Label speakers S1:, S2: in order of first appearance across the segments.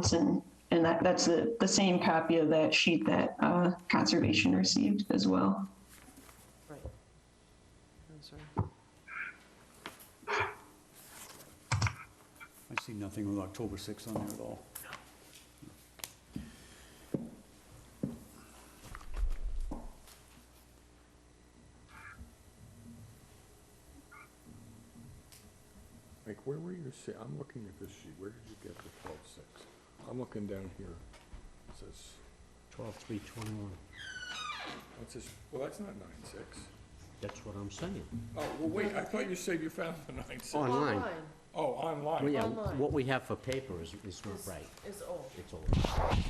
S1: Johnson. And that, that's the, the same copy of that sheet that uh, Conservation received as well.
S2: Right. I'm sorry.
S3: I see nothing with October 6th on there at all.
S4: Like, where were you, see, I'm looking at this sheet, where did you get the twelve-six? I'm looking down here, it says,
S5: Twelve, three, twenty-one.
S4: what's this, well, that's not nine-six.
S5: That's what I'm saying.
S4: Oh, well, wait, I thought you said you found the nine-six.
S5: Online.
S4: Oh,
S5: Well,
S4: online.
S5: yeah,
S2: Online.
S5: what we have for paper is, is not
S2: Is-
S5: right.
S2: Is old.
S5: It's old.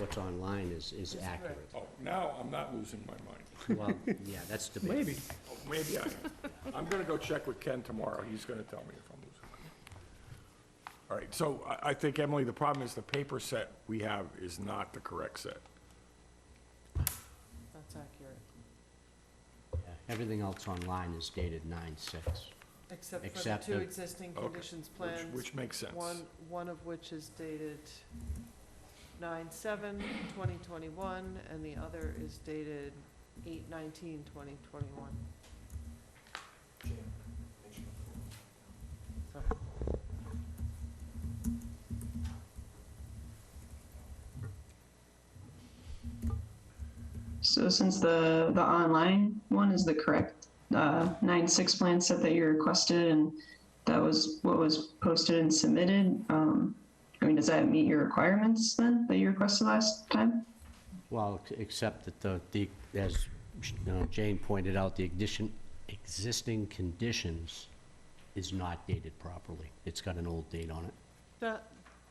S5: What's online is, is accurate.
S4: Oh, now I'm not losing my mind.
S5: Well, yeah, that's debatable. Maybe.
S4: Oh, Maybe I am. I'm gonna go check with Ken tomorrow, he's gonna tell me if I'm losing. my mind. All right, so I, I think, Emily, the problem is the paper set we have is not the correct set.
S2: That's accurate.
S5: Everything else online is dated nine-six.
S2: Except for the
S5: Except
S2: two
S5: the-
S2: existing
S4: Okay.
S2: conditions
S4: Which,
S2: plans.
S4: which makes sense.
S2: One, one of which is dated nine seven, twenty twenty-one, and the other is dated eight nineteen, twenty twenty-one. So,
S1: So since the, the online one is the correct uh, 9-6 plan set that you requested and that was what was posted and submitted, um, I mean, does that meet your requirements then that you requested last time?
S5: Well, ex- except that the, the, as uh, Jane pointed out, the ignition, existing conditions is not dated properly. It's got an old date on it.
S2: That,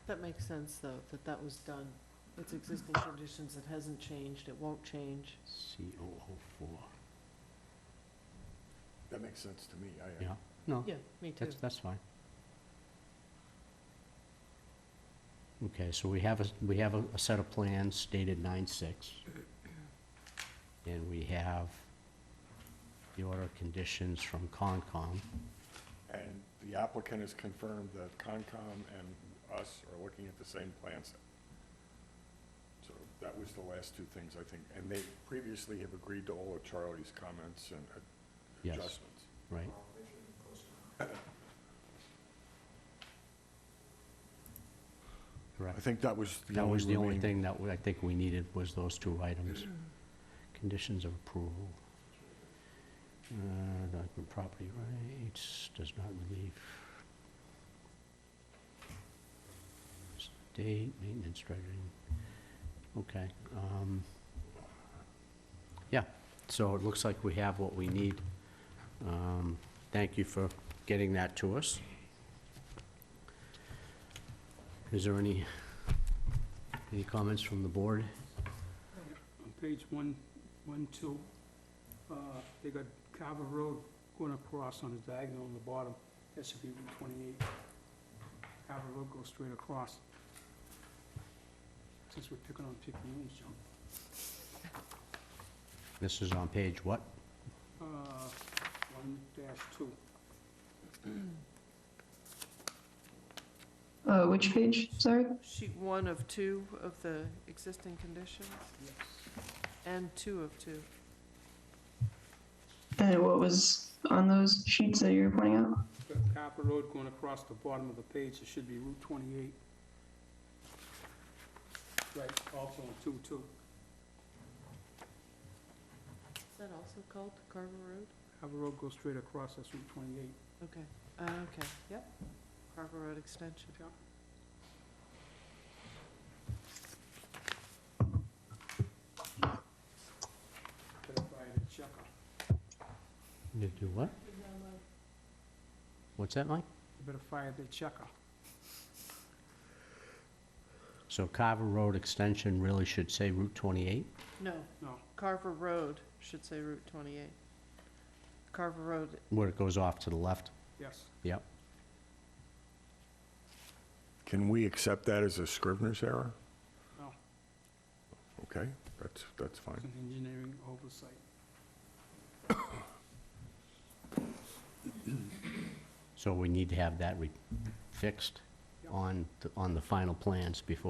S2: that makes sense, though, that that was done. It's existing conditions, it hasn't changed, it won't change.
S5: C O O four.
S4: That makes sense to me, I,
S5: Yeah, no,
S2: Yeah, me too.
S5: that's, that's fine. Okay, so we have a, we have a, a set of plans dated nine-six. And we have the order of conditions from Concom.
S4: And the applicant has confirmed that Concom and us are looking at the same plan set. So that was the last two things, I think, and they previously have agreed to all of Charlie's comments and uh,
S5: Yes.
S4: adjustments.
S5: right?
S4: I
S5: Correct.
S4: think that was the
S5: That was
S4: only
S5: the only
S4: remaining.
S5: thing that we- I think we needed was those two items. Conditions of approval. Uh, document property rights does not relieve. State maintenance dredging. Okay. um, Yeah, so it looks like we have what we need. Um, Thank you for getting that to us. Is there any any comments from the board?
S6: On page one, one, two, uh, they got Carver Road going across on the diagonal on the bottom, that should be Route twenty-eight. Carver Road goes straight across. Since we're picking on Picayune, John.
S5: This is on page what?
S6: Uh, one dash two,
S1: Uh, which page, sorry?
S2: Sheet one of two of the existing conditions,
S6: yes.
S2: and two of two.
S1: And what was on those sheets that you were pointing out?
S6: Got Carver Road going across the bottom of the page, it should be Route twenty-eight. Right, also on two, two,
S2: Is that also called Carver Road?
S6: Carver Road goes straight across, that's Route twenty-eight.
S2: Okay, uh, okay, yep, Carver Road Extension.
S6: Yeah. Identify the checker.
S5: You do what? What's that, Mike?
S6: You better fire the checker.
S5: So Carver Road Extension really should say Route 28?
S2: No,
S6: No,
S2: Carver Road should say Route twenty-eight. Carver Road,
S5: Where it goes off to the left?
S6: yes.
S5: Yep.
S4: Can we accept that as a Scrivener's error?
S6: No,
S4: Okay, that's, that's
S6: it's
S4: fine.
S6: an engineering oversight.
S5: So we need to have that re- fixed
S6: Yep.
S5: on, the- on the final plans before